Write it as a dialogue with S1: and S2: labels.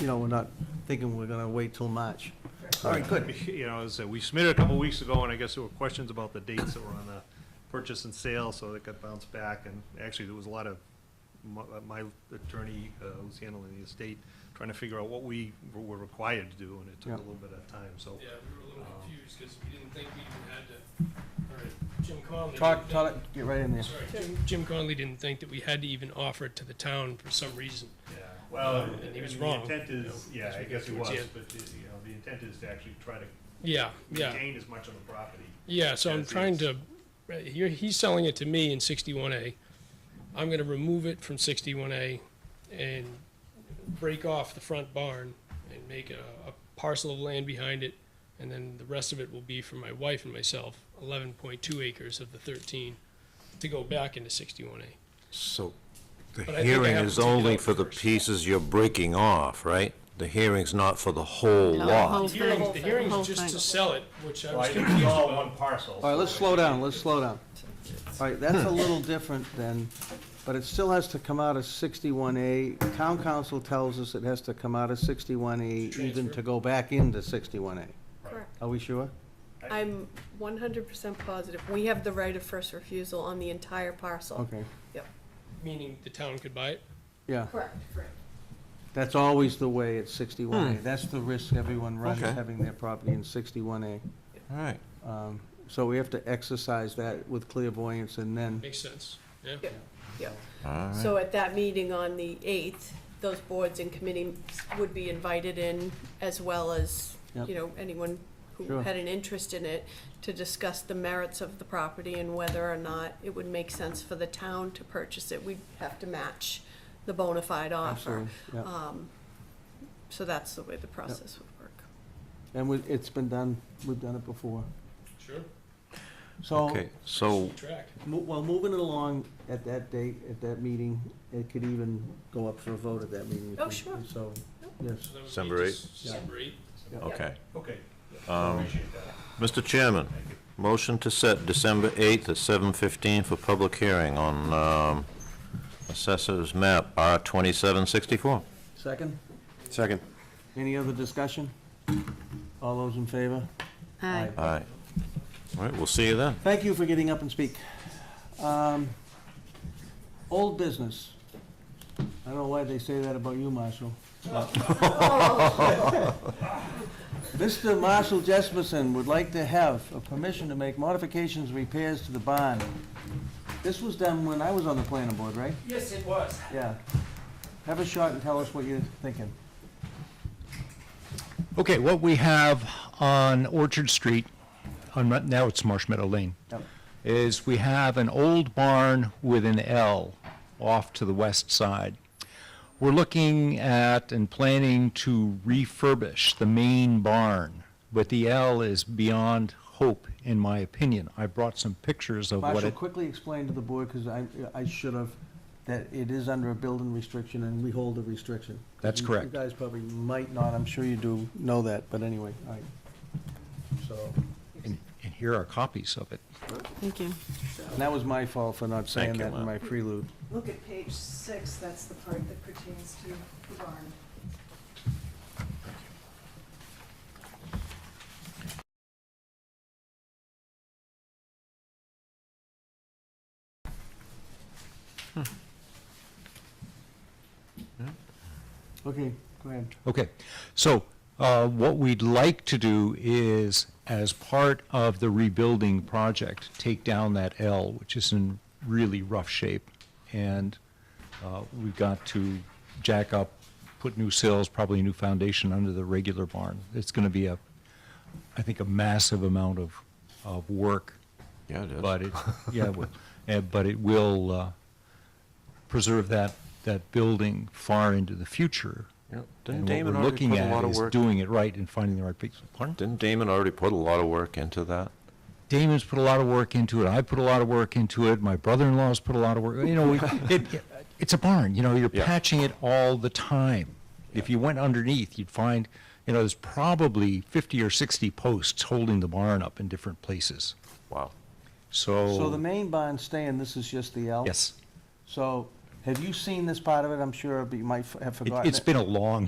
S1: you know, we're not thinking we're gonna wait till March. All right, good.
S2: You know, as I said, we submitted a couple weeks ago, and I guess there were questions about the dates that were on the purchase and sale, so it got bounced back, and actually, there was a lot of, my- uh, my attorney, uh, who's handling the estate, trying to figure out what we were required to do, and it took
S1: Yeah.
S2: a little bit of time, so.
S3: Yeah, we were a little
S1: Um,
S3: confused because we didn't think we even had to, all right, Jim Conley.
S1: Talk,
S3: didn't
S1: talk,
S3: think-
S1: get right in there.
S3: Sorry, Jim- Jim Conley didn't think that we had to even offer it to the town for some reason.
S2: Well,
S3: and he was wrong,
S2: The intent
S3: you know,
S2: is, yeah,
S3: as
S2: I
S3: we
S2: guess
S3: get
S2: he was,
S3: towards the end.
S2: but, the- you know, the intent is to actually try to
S3: Yeah, yeah,
S2: retain as much of the property.
S3: yeah, so I'm
S2: As
S3: trying
S2: is.
S3: to, right, you're, he's selling it to me in sixty-one A. I'm gonna remove it from sixty-one A and break off the front barn and make a, a parcel of land behind it. And then the rest of it will be for my wife and myself, eleven point two acres of the thirteen, to go back into sixty-one A.
S4: So the
S3: But I think I
S4: hearing
S3: have
S4: is
S3: to take it
S4: only
S3: out
S4: for the
S3: first.
S4: pieces you're breaking off, right? The hearing's not for the whole
S5: No,
S4: lot.
S5: whole-
S3: The hearing, the
S5: thing.
S3: hearing
S5: Whole
S3: is just to
S5: thing.
S3: sell it, which I
S2: Well,
S3: was
S2: I think
S3: confused
S2: it's all
S3: about.
S2: one parcel.
S1: All right, let's slow down, let's slow down. All right, that's a little different than, but it still has to come out of sixty-one A. Town council tells us it has to come out of sixty-one A even
S3: Transfer.
S1: to go back into sixty-one A.
S5: Correct.
S1: Are we sure?
S5: I'm one hundred percent positive. We have the right of first refusal on the entire parcel.
S1: Okay,
S5: Yep.
S3: Meaning the town could buy it?
S1: yeah.
S5: Correct, correct.
S1: That's always the way at sixty-one A. That's the risk everyone runs,
S4: Okay.
S1: having their property in sixty-one A.
S4: All right.
S1: Um, So we have to exercise that with clairvoyance and then,
S3: Makes sense, yeah?
S5: Yep, yep.
S4: All right.
S5: So at that meeting on the eighth, those boards and committees would be invited in as well as,
S1: Yep.
S5: you know, anyone who
S1: Sure.
S5: had an interest in it to discuss the merits of the property and whether or not it would make sense for the town to purchase it. We'd have to match the bona fide offer.
S1: Absolutely, yeah.
S5: Um, So that's the way the process would work.
S1: and we- it's been done, we've done it before.
S3: Sure,
S1: So,
S4: Okay, so,
S3: keep track.
S1: mo- well, moving it along at that date, at that meeting, it could even go up for a vote at that meeting. if
S5: Oh,
S1: we-
S5: sure.
S1: So, yes.
S3: So that would be
S4: December
S3: just
S1: Yeah.
S3: December eight.
S4: okay.
S2: Okay,
S4: Um,
S2: appreciate that.
S4: Mr. Chairman, motion to set December 8th at 7:15 for public hearing on um, Assessor's Map R2764.
S1: Second,
S4: Second.
S1: any other discussion? All those in favor? Aye.
S4: All right. All right, we'll see you then.
S1: Thank you for getting up and speak. Um, Old business. I don't know why they say that about you, Marshall. Mr. Marshall Jesperson would like to have a permission to make modifications, repairs to the barn. This was done when I was on the planning board, right?
S6: Yes, it was.
S1: Yeah. Have a shot and tell us what you're thinking.
S7: Okay, what we have on Orchard Street, on, Mar- now it's Marsh Meadow Lane,
S1: Yep.
S7: is we have an old barn with an L off to the west side. We're looking at and planning to refurbish the main barn, but the L is beyond hope, in my opinion. I brought some pictures of what
S1: Marshall,
S7: it,
S1: quickly explain to the board, because I, I should have, that it is under a building restriction and we hold a restriction.
S7: That's
S1: You-
S7: correct.
S1: You guys probably might not, I'm sure you do know that, but anyway, all right. So,
S7: and and here are copies of it.
S5: Thank you.
S1: and that was my fault for not saying
S4: Thank you,
S1: that in
S4: Lou.
S1: my prelude.
S8: Look at page six, that's the part that pertains to the barn.
S1: Okay, go ahead.
S7: Okay, so uh, what we'd like to do is, as part of the rebuilding project, take down that L, which is in really rough shape. And uh, we've got to jack up, put new sills, probably a new foundation under the regular barn. It's going to be a, I think, a massive amount of, of work.
S4: Yeah, it is.
S7: But it, yeah, it will. Uh, but it will uh, preserve that, that building far into the future.
S4: Yep. Didn't
S7: And what
S4: Damon
S7: we're
S4: already
S7: looking
S4: put a lot
S7: at
S4: of
S7: is
S4: work-
S7: doing it right and finding the right people. Pardon?
S4: Didn't Damon already put a lot of work into that?
S7: Damon's put a lot of work into it. I put a lot of work into it. My brother-in-law's put a lot of work. You know, we, it, it's a barn. You know, you're
S4: Yeah.
S7: patching it all the time. If you went underneath, you'd find, you know, there's probably 50 or 60 posts holding the barn up in different places.
S4: Wow.
S7: So,
S1: So the main barn's staying, this is just the L?
S7: Oh. yes,
S1: So, have you seen this part of it? I'm sure, but you might f- have
S7: it,
S1: forgotten it.
S7: it's been a long